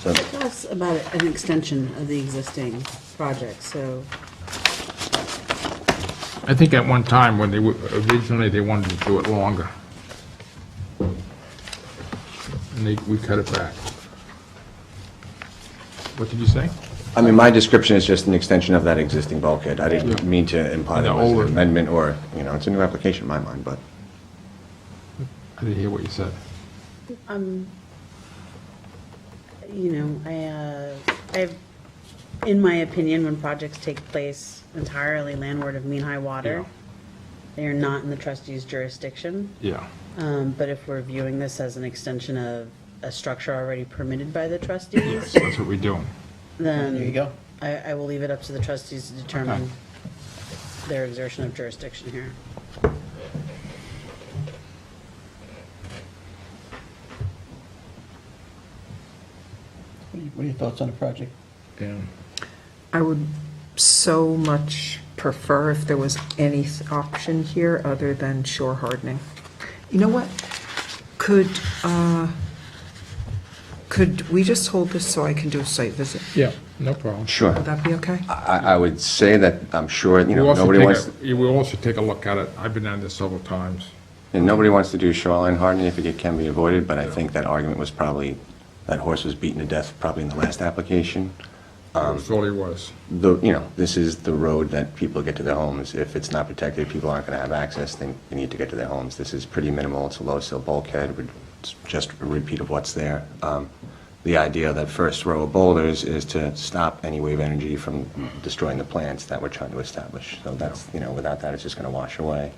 So, Tell us about an extension of the existing project, so, I think at one time when they, were- originally, they wanted to do it longer. And they, we cut it back. What did you say? I mean, my description is just an extension of that existing bulkhead. I didn't mean to imply there The was older- an amendment or, you know, it's a new application in my mind, but I didn't hear what you said. you know, I, uh, I've, in my opinion, when projects take place entirely landward of mean high water, they are not in the trustee's jurisdiction. Yeah. Um, But if we're viewing this as an extension of a structure already permitted by the trustees, Yes, that's what we do. then. There you go. I, I will leave it up to the trustees to determine their exertion of jurisdiction here. What are you- what are your thoughts on the project? I would so much prefer if there was any option here other than shore hardening. You know what? Could, uh, could we just hold this so I can do a site visit? Yeah, no problem. sure. Would that be okay? I, I would say that I'm sure, you We'll know, also nobody take wants, a- We'll also take a look at it. I've been on this several times. and nobody wants to do shoreline hardening if it can be avoided, but I think that argument was probably, that horse was beaten to death probably in the last application. Um, That's all it was. The, you know, this is the road that people get to their homes. If it's not protected, people aren't going to have access, they they need to get to their homes. This is pretty minimal, it's a low sill bulkhead, We're- it's just a repeat of what's there. Um, The idea of that first row of boulders is to stop any wave energy from destroying the plants that we're trying to establish. So that's, you know, without that, it's just going to wash away.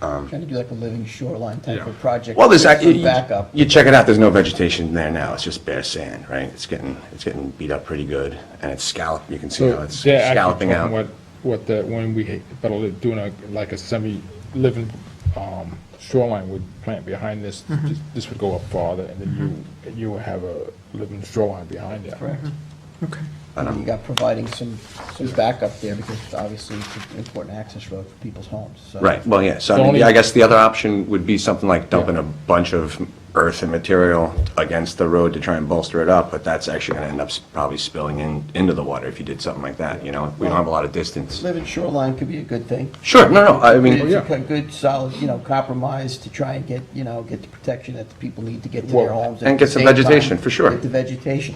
Trying to do like a living shoreline type of Yeah. project. Um, Well, there's, for ac- you- Backup. you check it out, there's no vegetation there now, it's just bare sand, right? It's getting, it's getting beat up pretty good, and it's scalloped, you can see how it's they're actually scalloping talking out. What, what the, when we, but doing a, like a semi-living um, shoreline would plant behind this, Mm-hmm. this- this would go up farther, and then you, you would have a living shoreline behind that. Correct. Mm-hmm. Okay. You got providing some, some backup there because obviously it's an important access road for people's homes, so. Right, well, yeah, so The I mean, only- I guess the other option would be something like dumping a bunch of earth and material against the road to try and bolster it up, but that's actually gonna end up s- probably spilling in, into the water if you did something like that, you know? We don't have a lot of distance. Living shoreline could be a good thing. Sure, no, no, I mean, It's a good, solid, you know, compromise to try and get, you know, get the protection that the people need to get to Well, their homes. at and the get some same time, vegetation, for sure. Get the vegetation.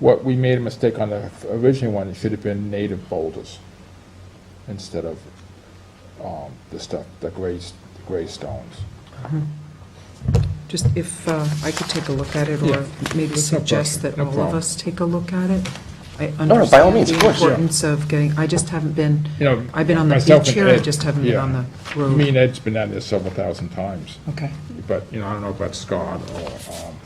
What, we made a mistake on the original one, it should have been native boulders instead of um, the stuff, the gray, s- the gray stones. Just if uh, I could take a look at it, Yeah. or maybe That's no suggest pressure. that No all of problem. Oh, us take a look at it. I no, by all understand means, the of course, yeah. importance of getting, I just haven't been, You know, I've been on the myself and beach here, I Ed, just haven't been yeah. on the road. Me and Ed's been on this several thousand times, Okay. but, you know, I don't know about Scott or, um,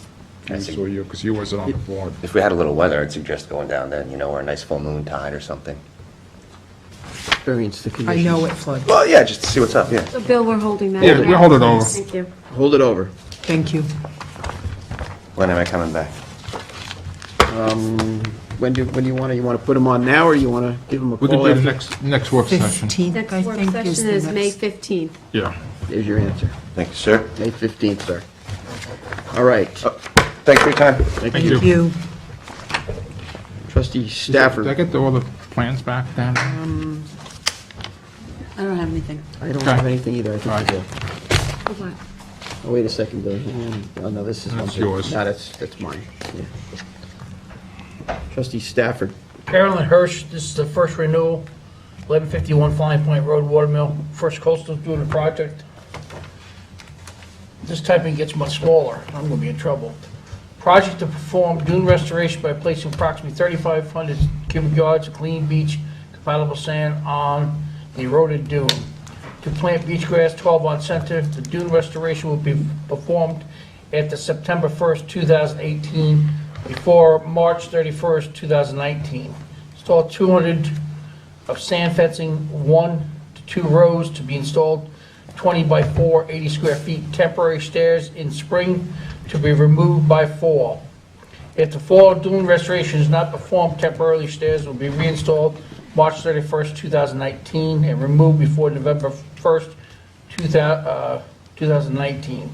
Bruce or you, because you wasn't on the board. if we had a little weather, I'd suggest going down then, you know, or a nice full moon tide or something. Experience the conditions. I know it floods. Well, yeah, just to see what's up, yeah. So Bill, we're holding that. Yeah, we'll hold it over. Thank you. Hold it over. Thank you. When am I coming back? When do, when do you want to, you want to put them on now, or you want to give them a We could call do the after? next, next work session. 15th, I Next work think, is session the is May next. 15th. Yeah. There's your answer. Thank you, sir. May 15th, sir. All right. Uh, Thanks for your time. Thank Thank you. Trustee Did I Stafford, get all the plans back then? I don't have anything. I don't have Okay. anything either, I think All you right. do. What? Oh, wait a second, Bill. Hang on. Oh, no, this is one. That's big- yours. No, that's, that's mine, yeah. Trustee Stafford, Carolyn Hirsch, this is the first renewal, 1151 Flying Point Road, Watermill, First Coastal doing the project. This typing gets much smaller, I'm gonna be in trouble. Project to perform dune restoration by placing approximately 3,500 cubic yards of clean beach compatible sand on the eroded dune. To plant beach grass 12 on center, the dune restoration will be performed after September 1st, 2018, before March 31st, 2019. Install 200 of sand fencing, one to two rows to be installed, 20 by 4, 80 square feet, temporary stairs in spring to be removed by fall. If the fall dune restoration is not performed, temporarily stairs will be reinstalled March 31st, 2019, and removed before November 1st, 2000 uh, 2019.